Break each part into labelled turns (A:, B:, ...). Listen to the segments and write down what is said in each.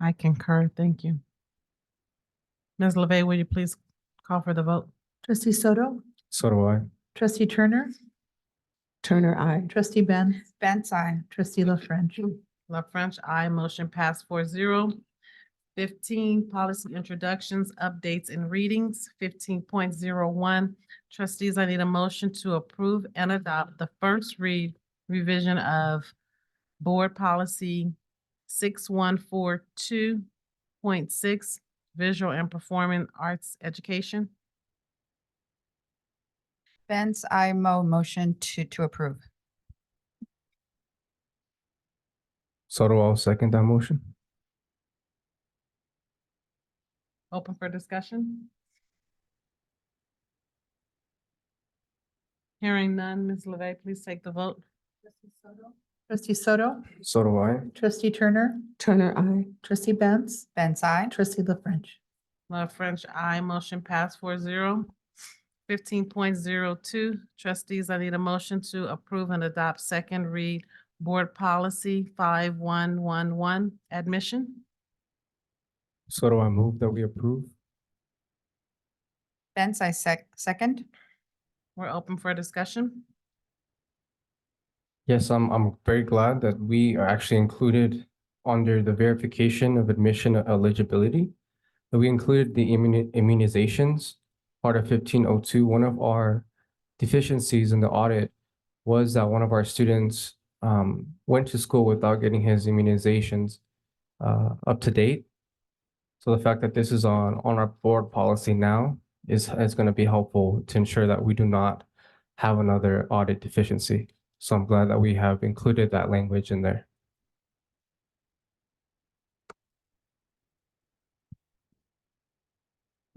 A: I concur. Thank you. Ms. LeVey, will you please call for the vote?
B: Trustee Soto,
C: So do I.
B: trustee Turner,
D: Turner, I.
B: trustee Ben,
E: Benz, I.
B: trustee La French.
A: La French, I motion pass four zero. Fifteen, policy introductions, updates and readings, fifteen point zero one. Trustees, I need a motion to approve and adopt the first read revision of board policy six one four two point six, visual and performing arts education.
E: Benz, I mo motion to, to approve.
C: So do I. Second that motion.
A: Open for discussion? Hearing none, Ms. LeVey, please take the vote.
B: Trustee Soto,
C: So do I.
B: trustee Turner,
D: Turner, I.
B: trustee Benz,
E: Benz, I.
B: trustee La French.
A: La French, I motion pass four zero. Fifteen point zero two, trustees, I need a motion to approve and adopt second read board policy five one one one, admission.
C: So do I move that we approve.
E: Benz, I sec, second.
A: We're open for discussion.
C: Yes, I'm, I'm very glad that we are actually included under the verification of admission eligibility. that We included the immuni- immunizations, part of fifteen oh two. One of our deficiencies in the audit was that one of our students um, went to school without getting his immunizations uh, up to date. So the fact that this is on, on our board policy now is, is going to be helpful to ensure that we do not have another audit deficiency. So I'm glad that we have included that language in there.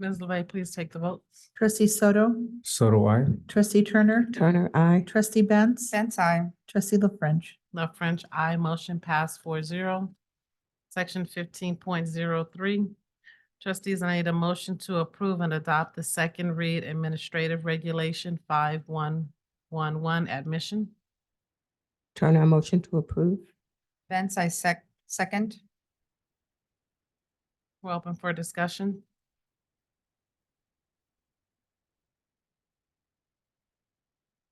A: Ms. LeVey, please take the vote.
B: Trustee Soto,
C: So do I.
B: trustee Turner,
D: Turner, I.
B: trustee Benz,
E: Benz, I.
B: trustee La French.
A: La French, I motion pass four zero. Section fifteen point zero three. Trustees, I need a motion to approve and adopt the second read administrative regulation five one one one admission.
D: Turner, I motion to approve.
E: Benz, I sec, second.
A: We're open for discussion.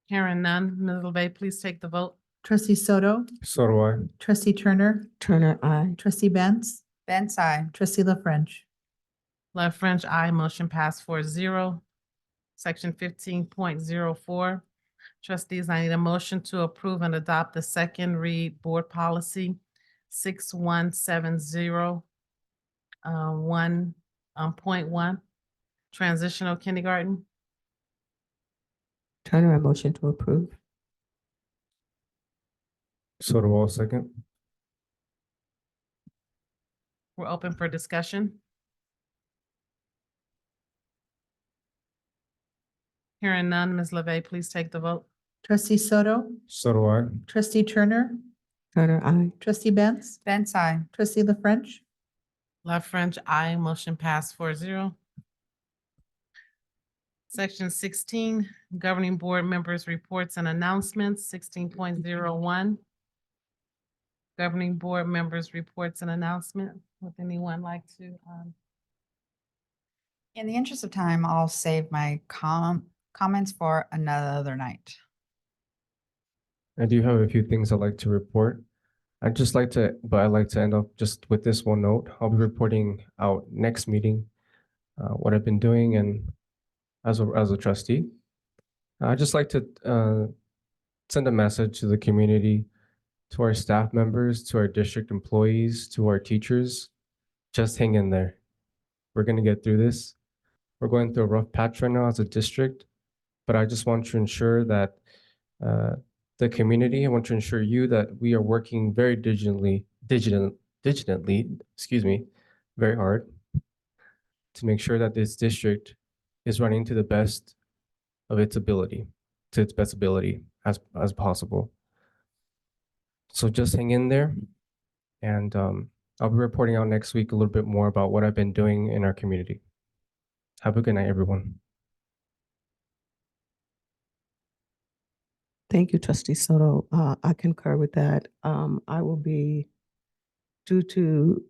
A: Hearing none, Ms. LeVey, please take the vote.
B: Trustee Soto,
C: So do I.
B: trustee Turner,
D: Turner, I.
B: trustee Benz,
E: Benz, I.
B: trustee La French.
A: La French, I motion pass four zero. Section fifteen point zero four. Trustees, I need a motion to approve and adopt the second read board policy six one seven zero. Uh, one, um, point one, transitional kindergarten.
D: Turner, I motion to approve.
C: So do I. Second.
A: We're open for discussion. Hearing none, Ms. LeVey, please take the vote.
B: Trustee Soto,
C: So do I.
B: trustee Turner,
D: Turner, I.
B: trustee Benz,
E: Benz, I.
B: trustee La French.
A: La French, I motion pass four zero. Section sixteen, governing board members' reports and announcements, sixteen point zero one. Governing board members' reports and announcement. Would anyone like to, um,
E: In the interest of time, I'll save my com, comments for another night.
C: I do have a few things I'd like to report. I'd just like to, but I'd like to end up just with this one note. I'll be reporting out next meeting, uh, what I've been doing and as a, as a trustee. I'd just like to, uh, send a message to the community, to our staff members, to our district employees, to our teachers. Just hang in there. We're gonna get through this. We're going through a rough patch right now as a district, but I just want to ensure that, uh, the community. I want to ensure you that we are working very diligently, digital, digitally, excuse me, very hard to make sure that this district is running to the best of its ability, to its best ability as, as possible. So just hang in there. And um, I'll be reporting out next week a little bit more about what I've been doing in our community. Have a good night, everyone.
D: Thank you, trustee Soto. Uh, I concur with that. Um, I will be, due to